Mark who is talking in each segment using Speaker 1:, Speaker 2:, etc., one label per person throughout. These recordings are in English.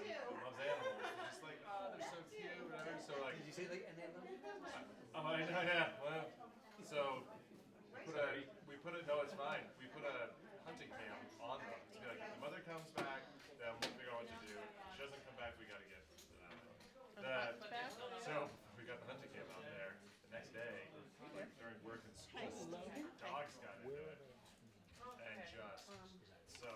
Speaker 1: oh, I know, yeah, well, so, we put a, we put a, no, it's fine, we put a hunting camp on them, to be like, if the mother comes back, then we'll figure out what to do, if she doesn't come back, we gotta get,
Speaker 2: back?
Speaker 1: uh, the, so, we got the hunting camp out there, the next day, like during work and school, dogs got into it. And just, so,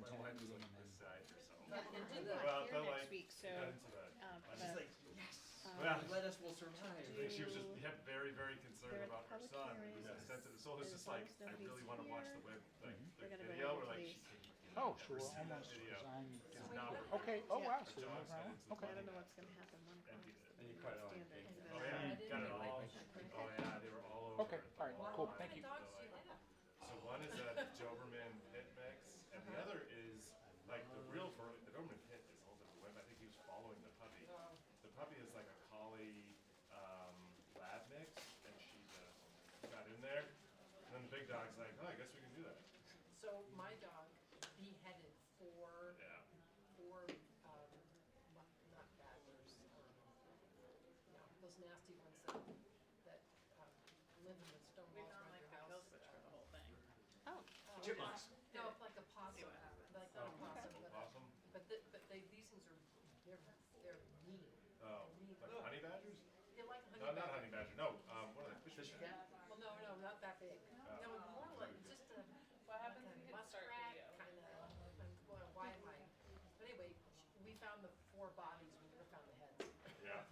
Speaker 1: my wife was like beside herself.
Speaker 2: And Jim's
Speaker 1: Well,
Speaker 2: not here next
Speaker 1: it felt like-
Speaker 2: week, so,
Speaker 1: Got into that.
Speaker 2: um,
Speaker 1: I was
Speaker 2: but-
Speaker 1: just like,
Speaker 3: yes,
Speaker 1: well,
Speaker 3: let us will survive.
Speaker 1: like she was just yeah, very, very concerned
Speaker 2: Um, They're at
Speaker 1: about her
Speaker 2: public
Speaker 1: son. who
Speaker 2: hearings.
Speaker 1: was sensitive. So it's
Speaker 2: As
Speaker 1: just
Speaker 2: long
Speaker 1: like,
Speaker 2: as
Speaker 1: I
Speaker 2: nobody's
Speaker 1: really want to watch the web, like
Speaker 2: They're
Speaker 1: the
Speaker 2: gonna bring
Speaker 1: video.
Speaker 2: the
Speaker 1: We're like,
Speaker 2: police.
Speaker 1: she can't
Speaker 4: Oh,
Speaker 1: never
Speaker 4: so we're
Speaker 1: see that
Speaker 4: almost
Speaker 1: video.
Speaker 4: resigning
Speaker 1: This is
Speaker 4: down.
Speaker 1: not working.
Speaker 4: Okay, oh
Speaker 2: Yeah.
Speaker 4: wow,
Speaker 1: Her
Speaker 4: so
Speaker 1: dog's got
Speaker 4: we're around,
Speaker 1: into the
Speaker 4: okay.
Speaker 2: I don't know
Speaker 1: body
Speaker 2: what's gonna happen one
Speaker 1: and did
Speaker 2: class.
Speaker 1: it.
Speaker 5: And you cut it off.
Speaker 2: Stand there, 'cause
Speaker 1: Oh
Speaker 2: that's-
Speaker 1: yeah, got it all. Oh yeah, they were all over.
Speaker 4: Okay,
Speaker 1: it, the
Speaker 4: all right,
Speaker 1: whole
Speaker 4: cool,
Speaker 1: time.
Speaker 4: thank you.
Speaker 1: So, like, So one is a Doberman pit mix, and the other is like the real for the Doberman pit is a whole different web. I think he was following the puppy. The puppy is like a collie um, lab mix, and she uh, got in there. And then the big dog's like, oh, I guess we can do that.
Speaker 6: So my dog beheaded four,
Speaker 1: Yeah.
Speaker 6: four, um, mu- not badgers, um, no, those nasty ones that, that, um, live in the stone walls around your house. uh,
Speaker 2: Oh,
Speaker 6: oh,
Speaker 3: Chipmunks.
Speaker 6: No, it's like a possum, like not a possum,
Speaker 1: Little Oh,
Speaker 6: but,
Speaker 1: possum.
Speaker 6: but the, but they, these things are, they're, they're mean.
Speaker 1: Oh, like honey badgers?
Speaker 6: They're like honey
Speaker 1: No, not
Speaker 6: badger.
Speaker 1: honey badger. No, um, what are they? Fish
Speaker 3: Fish
Speaker 1: cat?
Speaker 6: Well, no, no, not that big. No, more like just a. What happens if you start video? Kind of, well, why am I? But anyway, sh- we found the four bodies, we never found the heads.
Speaker 1: Yeah.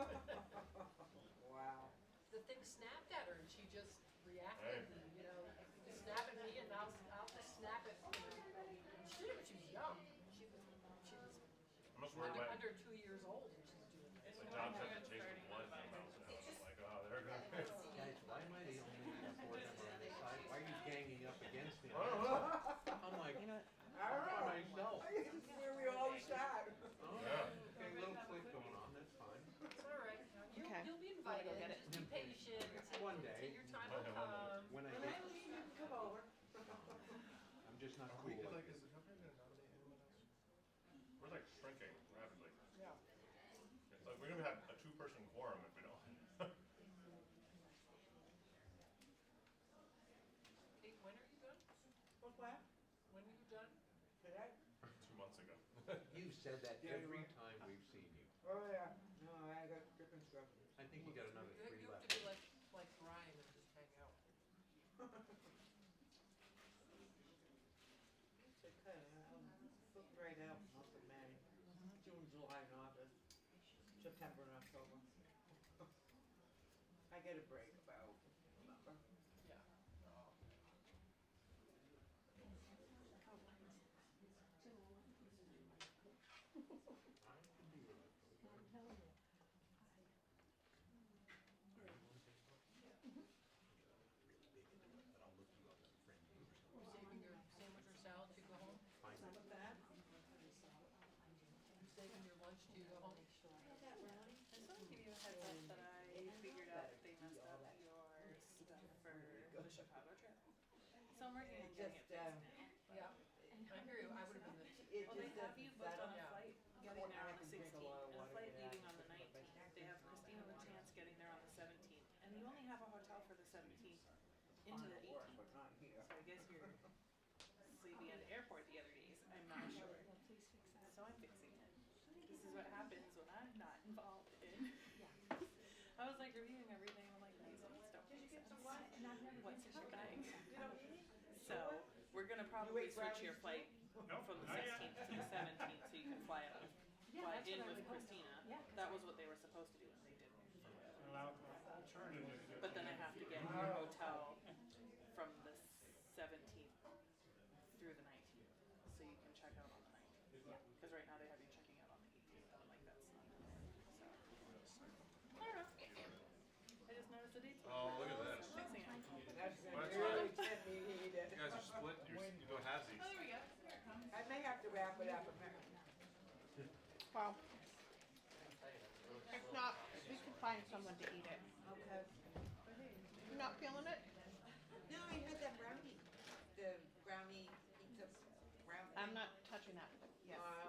Speaker 3: Wow.
Speaker 6: The thing snapped at her and she just
Speaker 1: Hey.
Speaker 6: reacted, you know, you snap at me and I'll, s- I'll just snap at, you know. She did, it when she was young. She was, she was
Speaker 1: I'm just worried
Speaker 6: under,
Speaker 1: about
Speaker 6: under two years old and she's doing this.
Speaker 1: when John tried to chase the blood from the mouse. I was like, oh, they're gonna.
Speaker 3: Guys, why am I the only board member on this side? Why are you ganging up against me?
Speaker 1: I don't know.
Speaker 3: I'm like,
Speaker 2: you know, what?
Speaker 3: I'm by myself.
Speaker 7: Where we all
Speaker 3: Oh,
Speaker 7: sat.
Speaker 1: Yeah.
Speaker 3: Okay, a little click going on, that's fine.
Speaker 6: It's all right. You'll,
Speaker 2: Okay.
Speaker 6: you'll be
Speaker 2: wanna
Speaker 6: invited,
Speaker 2: go get it?
Speaker 6: just be patient.
Speaker 3: One
Speaker 6: until
Speaker 3: day.
Speaker 6: your time
Speaker 1: One
Speaker 6: will
Speaker 1: day, one day.
Speaker 6: come.
Speaker 3: When I
Speaker 7: When
Speaker 3: get,
Speaker 7: I leave, you can come over.
Speaker 3: I'm just not
Speaker 1: We
Speaker 3: cool
Speaker 1: could,
Speaker 3: like
Speaker 1: like,
Speaker 3: this.
Speaker 1: is the company gonna nominate anyone else? We're like shrinking rapidly.
Speaker 6: Yeah.
Speaker 1: It's Like, we're gonna have a two-person quorum if we don't.
Speaker 6: Kate, when are you done?
Speaker 7: What's that?
Speaker 6: When are you done?
Speaker 7: Did I?
Speaker 1: Two months ago.
Speaker 3: You said that
Speaker 7: Yeah, you
Speaker 3: every
Speaker 7: were.
Speaker 3: time we've seen you.
Speaker 7: Oh, yeah. No, I got different stuff.
Speaker 3: I think you got another
Speaker 6: You
Speaker 3: three
Speaker 6: you have
Speaker 3: left.
Speaker 6: to be like, like Brian and just hang out.
Speaker 7: So kind of, I'm looking right now, month of May, June, July, and August, September and October. I get a break about November.
Speaker 6: Yeah. You're saving your sandwich or salad to go home?
Speaker 7: Some of that,
Speaker 6: You're saving your lunch to go home?
Speaker 8: I just want to give you a heads up that I figured out that they messed up your stuff for the Chicago trip. So I'm working on
Speaker 7: It
Speaker 8: getting it
Speaker 7: just,
Speaker 8: fixed
Speaker 7: uh,
Speaker 8: now.
Speaker 6: Yeah. I hear you, I would have been the,
Speaker 7: it
Speaker 8: Well, they
Speaker 7: just
Speaker 8: have
Speaker 7: doesn't
Speaker 8: you booked
Speaker 7: settle.
Speaker 8: on a
Speaker 6: yeah.
Speaker 8: flight
Speaker 7: Well,
Speaker 8: getting there
Speaker 7: I
Speaker 8: on the
Speaker 7: can drink a
Speaker 8: sixteenth,
Speaker 7: lot of
Speaker 8: and a
Speaker 7: water
Speaker 8: flight
Speaker 7: to that,
Speaker 8: leaving on the
Speaker 7: but if I
Speaker 8: nineteenth.
Speaker 7: can't
Speaker 8: They have Christina Latance getting there on the seventeenth, and you only have a hotel for the seventeenth into
Speaker 7: on
Speaker 8: the
Speaker 7: the work, but
Speaker 8: eighteenth.
Speaker 7: not here.
Speaker 8: So I guess you're sleeping at the airport the other days, I'm not sure. So I'm fixing it. This is what happens when I'm not involved in. I was like reviewing everything, I'm like, these ones don't make sense. What's happening? So, we're gonna probably
Speaker 7: wait for
Speaker 8: switch your
Speaker 7: hours?
Speaker 8: flight from
Speaker 1: Oh,
Speaker 8: the sixteenth to the seventeenth, so you can fly out with, fly in with Christina. That was what they were supposed to do, and they didn't. But then I have to get your hotel from the seventeenth through the nineteenth, so you can check out on the nineteenth. Cause right now they have you checking out on the eighteenth, and I'm like, that's not, so. I don't know. I just noticed the dates. were
Speaker 5: Oh, look at
Speaker 8: different,
Speaker 5: that.
Speaker 8: so I'm fixing it.
Speaker 7: That's gonna
Speaker 5: Well, that's
Speaker 7: really
Speaker 5: fine.
Speaker 7: get me heated.
Speaker 5: You guys are split. You're, s- you go halvesies.
Speaker 8: Oh, there we go. Here it comes.
Speaker 7: I may have to wrap it up. I'm not-
Speaker 2: well. If not, we can find someone to eat it.
Speaker 7: Okay.
Speaker 2: You not feeling it?
Speaker 7: No, I had that brownie, the brownie pizza brownie.
Speaker 2: I'm not touching that, but yes.
Speaker 7: Uh,